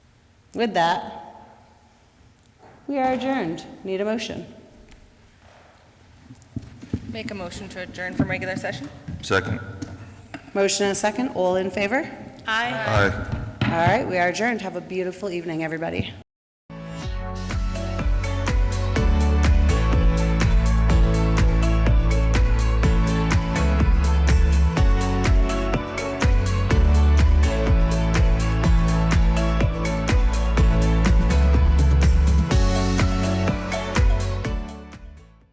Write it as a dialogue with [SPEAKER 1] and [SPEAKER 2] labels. [SPEAKER 1] With that, we are adjourned. Need a motion.
[SPEAKER 2] Make a motion to adjourn from regular session?
[SPEAKER 3] Second.
[SPEAKER 1] Motion and a second. All in favor?
[SPEAKER 2] Aye.
[SPEAKER 3] Aye.
[SPEAKER 1] All right, we are adjourned. Have a beautiful evening, everybody.